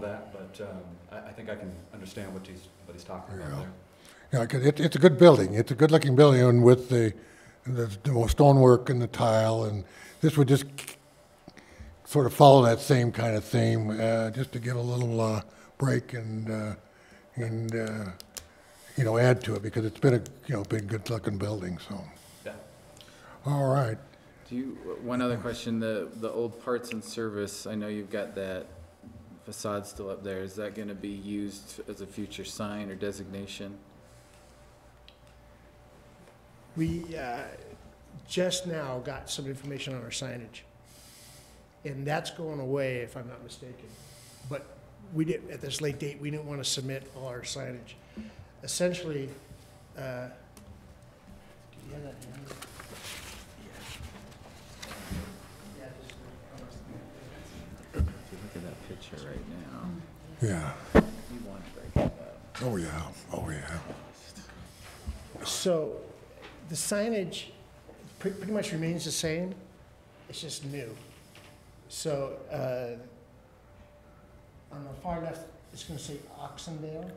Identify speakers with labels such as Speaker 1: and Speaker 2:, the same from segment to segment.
Speaker 1: but um, I, I think I can understand what he's, what he's talking
Speaker 2: Yeah.
Speaker 1: about there.
Speaker 2: Yeah, 'cause it, it's a good building. It's a good-looking building and with the, the stonework and the tile, and this would just sort of follow that same kind of theme, uh, just to give a little, uh, break and, uh, and, uh, you know, add to it, because it's been a, you know, been good-looking building, so.
Speaker 1: Yeah.
Speaker 2: All right.
Speaker 3: Do you, one other question, the, the old parts and service, I know you've got that facade still up there. Is that gonna be used as a future sign or designation?
Speaker 4: We uh, just now got some information on our signage, and that's going away, if I'm not mistaken. But we didn't, at this late date, we didn't want to submit all our signage. Essentially, uh, do you have that? handy? Yeah, just-
Speaker 3: Look at that picture right now.
Speaker 2: Yeah.
Speaker 3: You want to break it up.
Speaker 2: Oh, yeah. Oh, yeah.
Speaker 4: So the signage pre- pretty much remains the same, it's just new. So uh, on the far left, it's going to say Oxendale.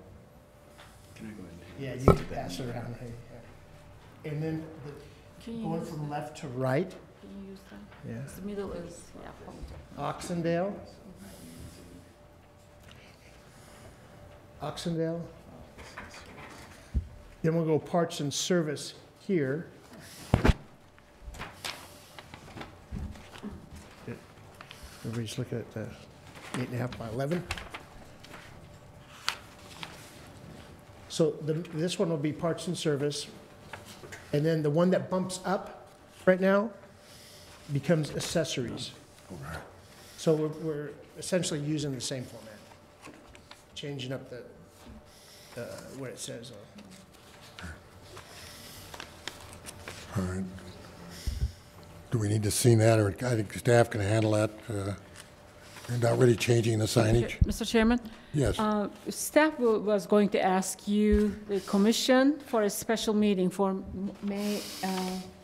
Speaker 1: Can I go ahead?
Speaker 4: Yeah, you can pass it around. hey, yeah. And then the-
Speaker 5: Can you
Speaker 4: going
Speaker 5: use,
Speaker 4: from left to right,
Speaker 5: can you use that?
Speaker 4: yeah.
Speaker 5: 'Cause The middle is, yeah, probably.
Speaker 4: Oxendale.
Speaker 5: Mm-hmm.
Speaker 4: Oxendale. Then we'll go parts and service here. Everybody's looking at the eight and a half by 11. So the, this one will be parts and service. And then the one that bumps up right now becomes accessories. So we're, we're essentially using the same format, changing up the, the, what it says. on-
Speaker 2: All right. Do we need to see that, or I think staff can handle that? uh, You're not really changing the signage?
Speaker 5: Mr. Chairman,
Speaker 2: Yes.
Speaker 5: uh, staff wa- was going to ask you, the commission, for a special meeting for M- May, uh,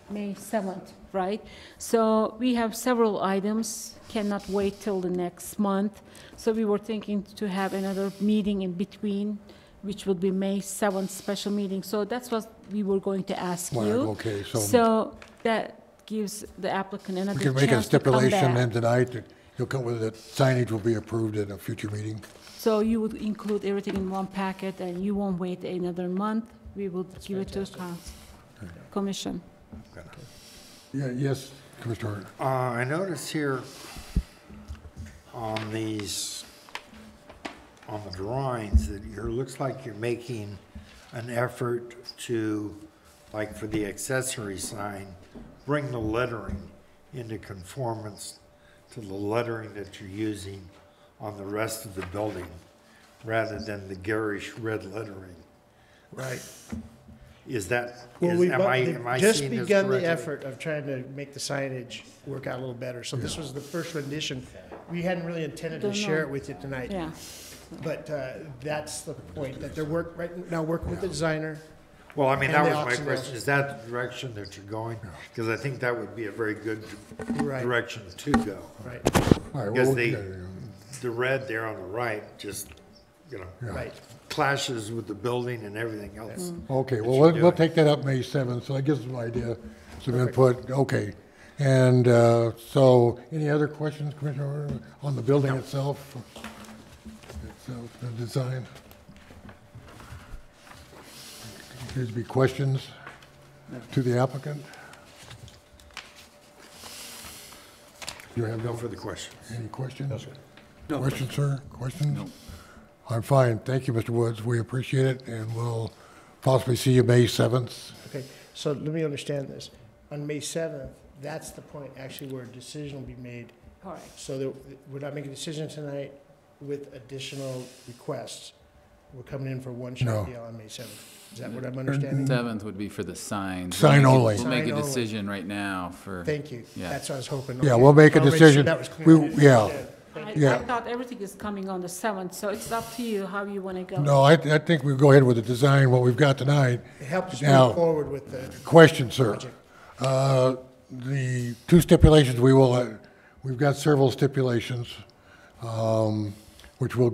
Speaker 5: May 7th, right? So we have several items, cannot wait till the next month. So we were thinking to have another meeting in between, which would be May 7th special meeting. So that's what we were going to ask
Speaker 2: Well,
Speaker 5: you.
Speaker 2: okay, so-
Speaker 5: So that gives the applicant another
Speaker 2: We
Speaker 5: chance to
Speaker 2: can make
Speaker 5: come
Speaker 2: a stipulation
Speaker 5: back.
Speaker 2: then tonight that you'll come with it, signage will be approved at a future meeting.
Speaker 5: So you would include everything in one packet, and you won't wait another month? We will give it to council, commission.
Speaker 2: Yeah, yes, Commissioner Harder.
Speaker 6: Uh, I notice here on these, on the drawings, that you're, looks like you're making an effort to, like for the accessory sign, bring the lettering into conformance to the lettering that you're using on the rest of the building, rather than the garish red lettering.
Speaker 4: Right.
Speaker 6: Is that,
Speaker 4: Well,
Speaker 6: is,
Speaker 4: we
Speaker 6: am I, am I
Speaker 4: just
Speaker 6: seeing this correctly?
Speaker 4: begun the effort of trying to make the signage work out a little better. So this was the first rendition. We hadn't really intended to
Speaker 5: Don't
Speaker 4: share
Speaker 5: know.
Speaker 4: it with you tonight.
Speaker 5: Yeah,
Speaker 4: But uh, that's the point, that they're work, right now working with the designer.
Speaker 6: Well, I mean,
Speaker 4: And
Speaker 6: that
Speaker 4: the
Speaker 6: was my
Speaker 4: oxygen.
Speaker 6: question, is that the direction that you're going? Because I think that would be a very good
Speaker 4: Right.
Speaker 6: direction to go.
Speaker 4: Right,
Speaker 2: All right,
Speaker 6: Because
Speaker 2: well,
Speaker 6: they,
Speaker 2: yeah, yeah.
Speaker 6: the red there on the right just, you know,
Speaker 4: right.
Speaker 6: clashes with the building and everything else.
Speaker 4: Mm.
Speaker 2: Okay,
Speaker 6: that
Speaker 2: well, we'll,
Speaker 6: you're
Speaker 2: we'll
Speaker 6: doing.
Speaker 2: take that up May 7th, so that gives us an idea, some input, okay. And uh, so, any other questions, Commissioner, Harder, on the building itself? Itself, the design? Appears to be questions to the applicant? You have no
Speaker 6: No further questions.
Speaker 2: any questions? Questions, sir? Questions? I'm fine. Thank you, Mr. Woods. We appreciate it, and we'll possibly see you May 7th.
Speaker 4: Okay, so let me understand this. On May 7th, that's the point actually where a decision will be made
Speaker 5: correct.
Speaker 4: So that we're not making a decision tonight with additional requests. We're coming in for one
Speaker 2: No.
Speaker 4: shot deal on May seventh. Is that what I'm understanding?
Speaker 3: Seventh would be for the signs.
Speaker 2: Sign
Speaker 3: We'll make
Speaker 2: only.
Speaker 3: a- We'll make
Speaker 4: Sign
Speaker 3: a
Speaker 4: only.
Speaker 3: decision right now for.
Speaker 4: Thank you.
Speaker 3: Yeah.
Speaker 4: That's what I was hoping.
Speaker 2: Yeah,
Speaker 4: Okay.
Speaker 2: we'll make a
Speaker 4: I'll make sure
Speaker 2: decision.
Speaker 4: that was clear.
Speaker 2: We- yeah.
Speaker 5: I, I
Speaker 2: Yeah.
Speaker 5: thought everything is coming on the 7th, so it's up to you how you want to go.
Speaker 2: No, I, I think we'll go ahead with the design, what we've got tonight.
Speaker 4: It helps us
Speaker 2: Now-
Speaker 4: move forward with the,
Speaker 2: Question, sir. Uh, The two stipulations, we will, uh, we've got several stipulations, um, which we'll